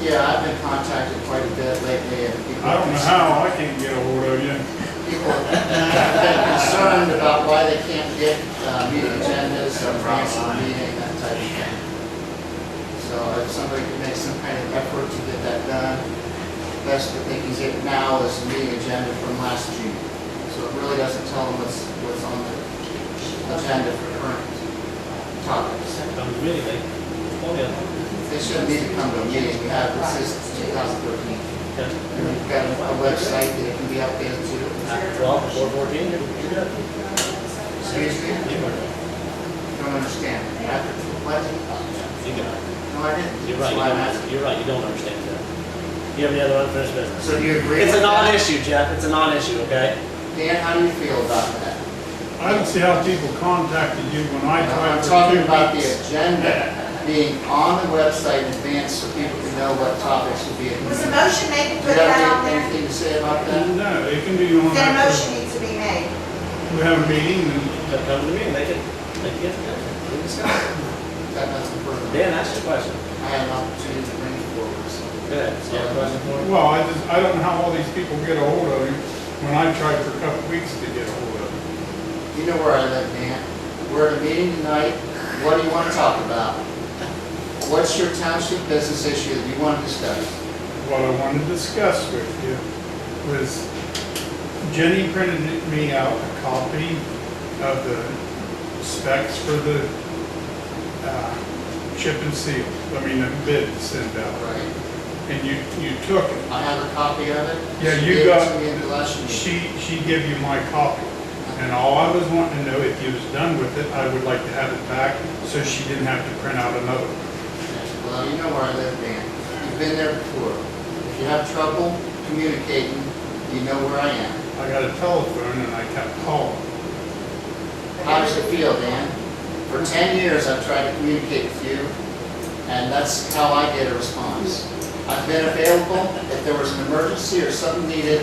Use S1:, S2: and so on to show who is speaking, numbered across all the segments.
S1: Yeah, I've been contacted quite a bit lately and people.
S2: I don't know how, I can't get a hold of you.
S1: People have been concerned about why they can't get uh, meeting agendas or advance of the meeting, that type of thing. So if somebody could make some kind of effort to get that done, best that they can get now is the meeting agenda from last June. So it really doesn't tell them what's, what's on the agenda for current topics.
S3: Sounds really late. Oh, yeah.
S1: They shouldn't need to come to a meeting, we have it since 2013.
S3: Okay.
S1: And we've got a website that can be updated to.
S3: After all, before fourteen, you're you're good.
S1: Excuse me,
S3: You are,
S1: don't understand. After what?
S3: you got-
S1: No, I didn't. That's
S3: you're right, you
S1: why I'm
S3: don't,
S1: asking.
S3: you're right, you don't understand that. You have any other unfinished business?
S1: So do you agree?
S3: It's a
S1: with that?
S3: non-issue, Jeff, it's a non-issue, okay?
S1: Dan, how do you feel about that?
S2: I don't see how people contacted you when I
S1: I'm
S2: tried for
S1: talking
S2: two
S1: about the
S2: weeks.
S1: agenda being on the website in advance so people can know what topics will be. at the
S4: Was a
S1: meeting.
S4: motion made
S1: Do
S4: to
S1: you
S4: put that on
S1: have
S4: there?
S1: anything to say about that?
S2: No, it can be on
S4: Then a
S2: that,
S4: motion needs to be made.
S2: we have a meeting and
S3: Come come to me, and make it, make it good. We discuss it.
S1: Got nothing further.
S3: Mm-hmm. Dan, ask your question.
S1: I had an opportunity to bring it forward, so.
S3: Good. You have a question for me?
S2: Well, I just, I don't know how all these people get a hold of you when I tried for a couple weeks to get a hold of
S1: You
S2: you.
S1: know where I live, man. We're at a meeting tonight. What do you want to talk about? What's your township business issue that you want to discuss?
S2: What I wanted to discuss with you was Jenny printed me out a copy of the specs for the uh, chip and seal, I mean, the bid send out,
S1: Right.
S2: and you, you took it.
S1: I have a copy of it.
S2: Yeah,
S1: She
S2: you
S1: gave it
S2: got-
S1: to me in the last meeting.
S2: She, she gave you my copy, and all I was wanting to know, if you was done with it, I would like to have it back, so she didn't have to print out another one.
S1: Well, you know where I live, man. You've been there before. If you have trouble communicating, you know where I am.
S2: I got a telephone and I kept calling.
S1: How does it feel, Dan? For ten years, I've tried to communicate with you, and that's how I get a response. I've been available. If there was an emergency or something needed,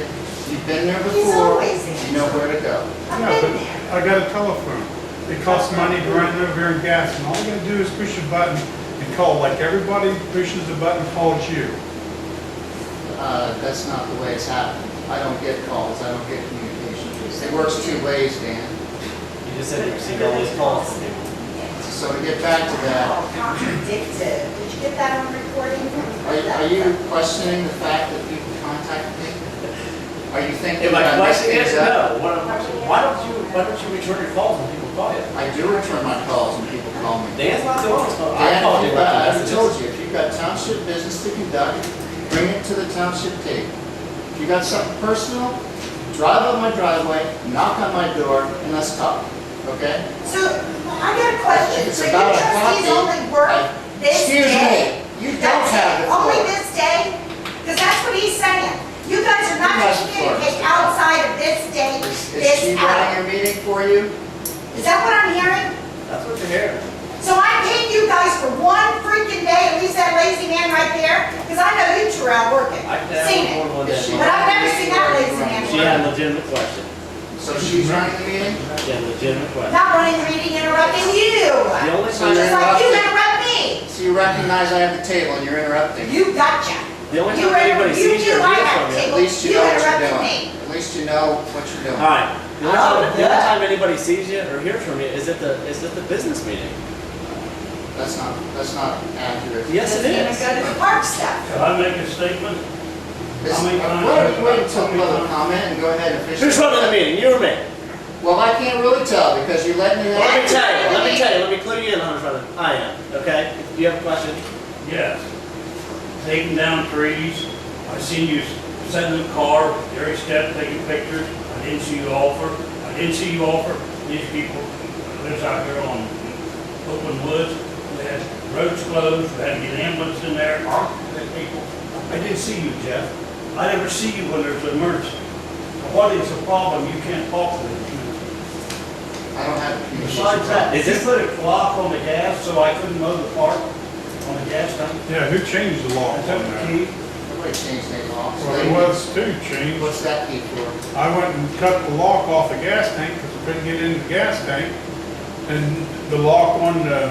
S1: you've been there
S4: He's
S1: before.
S4: always
S1: You know where to go.
S4: I've
S2: Yeah,
S4: been
S2: but
S4: there.
S2: I got a telephone. It costs money to run over here and gas, and all you gotta do is push a button and call, like everybody pushes a button, calls you.
S1: Uh, That's not the way it's happened. I don't get calls, I don't get communication. It works two ways, Dan.
S3: You just said you received all these calls from people.
S1: So to get back to that,
S4: Oh, Contradicted. Did you get that on recording?
S1: are are you questioning the fact that people contacted me? Are you thinking
S3: If my
S1: that I messed
S3: question
S1: things
S3: is
S1: up?
S3: no, what I'm- why don't you, why don't you return your calls when people call you?
S1: I do return my calls when people call me.
S3: Dan's not the one who's calling. I
S1: Dan, if
S3: called you.
S1: you got-
S3: I
S1: I told you, if you've got township business to conduct, bring it to the township table. If you got something personal, drive up my driveway, knock on my door, and let's talk, okay?
S4: So, I got a question.
S1: It's
S4: So you
S1: about a copy.
S4: trustees only work this
S1: Excuse
S4: day?
S1: me, you don't
S4: That's
S1: have
S4: it?
S1: the
S4: Only
S1: floor.
S4: this day? Because that's what he's saying. You guys are not
S1: You
S4: to
S1: have the floor,
S4: communicate
S1: Mr.
S4: outside of this day,
S1: Is is she running
S4: this hour.
S1: a meeting for you?
S4: Is that what I'm hearing?
S3: That's what you're hearing.
S4: So I paid you guys for one freaking day, at least that lazy man right there, because I know you two are out working,
S3: I can have
S4: seen it.
S3: more than one
S1: Is she
S3: day.
S4: But I've never
S1: running a
S4: seen that
S1: meeting
S4: lazy
S1: for you?
S4: man.
S3: She had a legitimate question.
S1: So she's running the meeting?
S3: She had a legitimate question.
S4: Not running the meeting, interrupting you,
S3: The only
S1: So you're
S4: just
S3: time,
S4: like you
S1: interrupting,
S4: interrupt me.
S1: so you recognize I have the table and you're interrupting.
S4: You gotcha.
S3: the only
S4: You
S3: time
S4: were,
S3: anybody
S4: you
S3: sees you
S4: do,
S3: or
S4: I
S3: hears
S4: have
S3: from
S4: a
S3: you.
S1: At
S4: table,
S1: least you
S4: you
S1: know what you're
S4: interrupted
S1: doing.
S4: me.
S1: At least you know what you're doing.
S3: Alright, the only time, the only
S4: Oh,
S3: time anybody sees you or hears from you is at the, is at the business meeting.
S1: That's not, that's not accurate.
S3: Yes, it
S4: Let's
S3: is.
S4: Go to the park stuff.
S5: Can I make a statement?
S1: This-
S5: How many
S1: uh,
S5: times-
S1: Why don't you wait until
S5: how many
S1: public
S5: times-
S1: comment and go ahead and finish.
S3: Who's running the meeting, you or me?
S1: Well, I can't really tell because you let me.
S3: Let me
S1: have-
S3: tell you, let me tell you, let me clue you in on who's running. I am, okay? Do you have a question?
S5: Yes. Taking down trees. I seen you sending the car, every step taking pictures. I didn't see you offer. I didn't see you offer these people that lives out here on Oakland Woods. We had roads closed, we had to get ambulance in there, these people. I didn't see you, Jeff. I never see you when there's an emergency. What is the problem? You can't talk to these people.
S1: I don't have a communication.
S5: Besides that,
S3: Is
S5: did you
S3: this-
S5: put a clock on the gas so I couldn't mow the park on the gas tank?
S2: Yeah, who changed the law
S5: I
S2: on
S5: took the
S2: that?
S5: key.
S1: Nobody changed their law. So
S2: Well,
S1: they-
S2: there was two changed.
S1: What's that key for?
S2: I went and cut the lock off the gas tank because I couldn't get in the gas tank. And the lock on the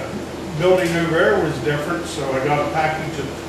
S2: building over there was different, so I got a package of